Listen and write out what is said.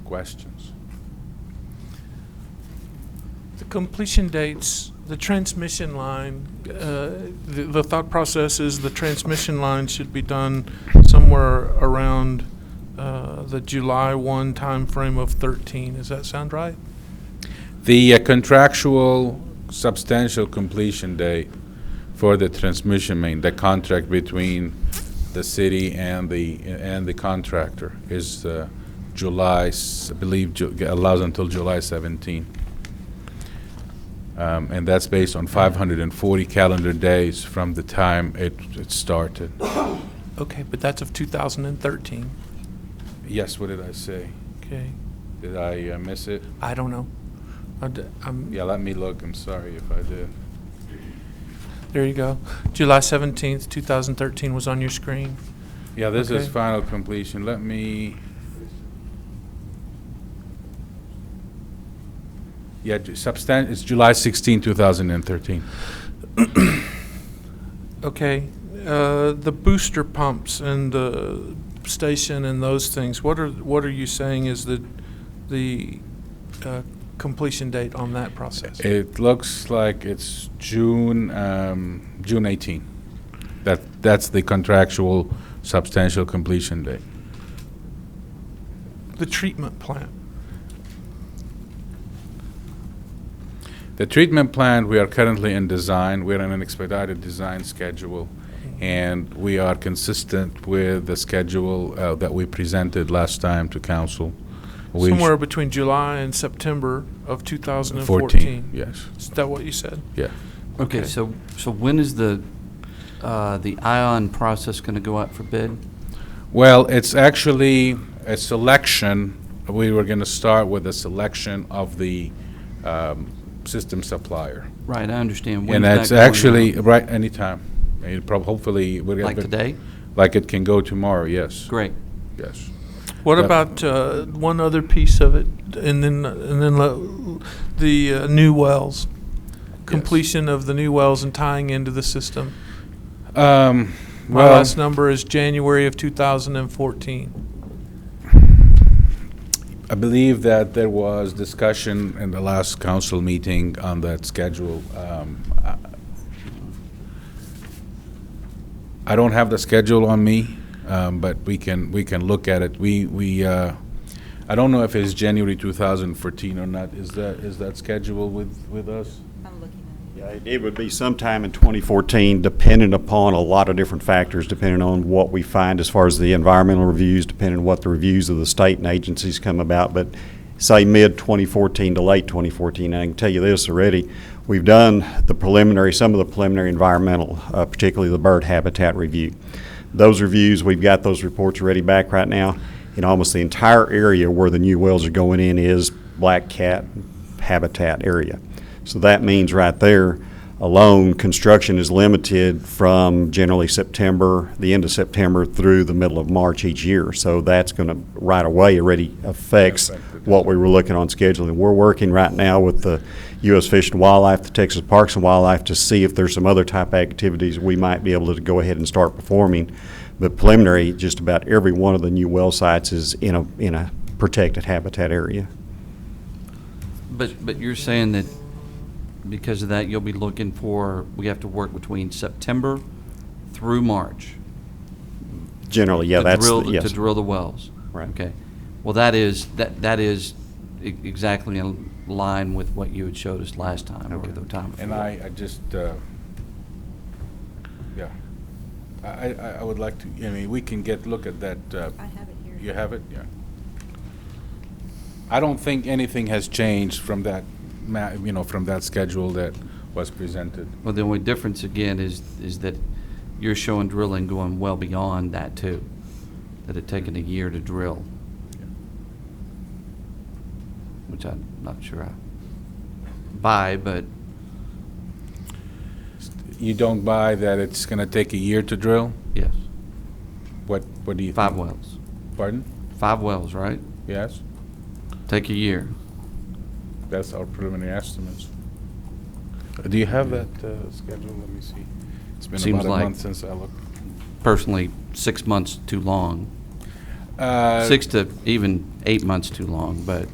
questions. The completion dates, the transmission line, uh, the the thought process is the transmission line should be done somewhere around uh, the July 1 timeframe of 13. Does that sound right? The uh, contractual substantial completion date for the transmission main, the contract between the city and the, and the contractor is uh, July, s- I believe, Ju- allows until July 17. Um, And that's based on 540 calendar days from the time it, it started. Okay, but that's of 2013. Yes, what did I say? Okay, Did I uh, miss it? I don't know. I d- I'm- Yeah, let me look, I'm sorry if I did. There you go. July 17th, 2013 was on your screen. Yeah, this is Okay. final completion. Let me. Yeah, ju- substan, it's July 16, 2013. Okay, uh, the booster pumps and the station and those things, what are, what are you saying is the, the uh, completion date on that process? It looks like it's June, um, June 18. That, that's the contractual substantial completion date. The treatment plant, The treatment plant, we are currently in design, we're in an expedited design schedule, and we are consistent with the schedule uh, that we presented last time to council. We sh- somewhere between July and September of 14, 2014. yes, Is that what you said? yeah. Okay. Okay, so, so when is the, uh, the ion process going to go out for bid? Well, it's actually a selection, we were going to start with a selection of the um, system supplier. Right, I understand. When's And that that's going out? actually, right, anytime. It prob- Hopefully, we're going Like to... today? Like it can go tomorrow, yes. Great. Yes. What That- about uh, one other piece of it, and then, and then lo- the uh, new wells? Completion of the new wells and tying into the system? Um, My Well, last number is January of 2014. I believe that there was discussion in the last council meeting on that schedule. Um, I- I don't have the schedule on me, um, but we can, we can look at it. We, we, uh, I don't know if it's January 2014 or not. Is that, is that scheduled with, with us? I'm looking at Yeah, it- it would be sometime in 2014, dependent upon a lot of different factors, depending on what we find as far as the environmental reviews, depending on what the reviews of the state and agencies come about, but say mid-2014 to late 2014. And I can tell you this already, we've done the preliminary, some of the preliminary environmental, uh, particularly the bird habitat review. Those reviews, we've got those reports ready back right now. In almost the entire area where the new wells are going in is black cat habitat area. So that means right there alone, construction is limited from generally September, the end of September through the middle of March each year. So that's going to, right away, already affects what we were looking on scheduling. We're working right now with the U.S. Fish and Wildlife, the Texas Parks and Wildlife, to see if there's some other type of activities we might be able to go ahead and start performing. But preliminary, just about every one of the new well sites is in a, in a protected habitat area. But, but you're saying that because of that, you'll be looking for, we have to work between September through March? Generally, yeah, to that's, drill the- the- yes. To drill the wells? Right. Okay. Well, that is, that, that is e- exactly in line with what you had showed us last time or Okay. the time before. And I, I just, uh, yeah. I, I, I would like to, I mean, we can get, look at that, uh, it. I have it here. You have it, yeah. I don't think anything has changed from that, ma- you know, from that schedule that was presented. Well, the only difference again is, is that you're showing drilling going well beyond that too, that it taken a year to drill, which I'm not sure I buy, but, You don't buy that it's gonna take a year to drill? yes, What, what do you think? five wells. Pardon? Five wells, right? Yes, Take a year. that's our preliminary estimates. Do you have that uh, schedule? Let me see. It's been Seems about a like- month since I looked. Personally, six months too long. Uh, Six to even eight months too long, but.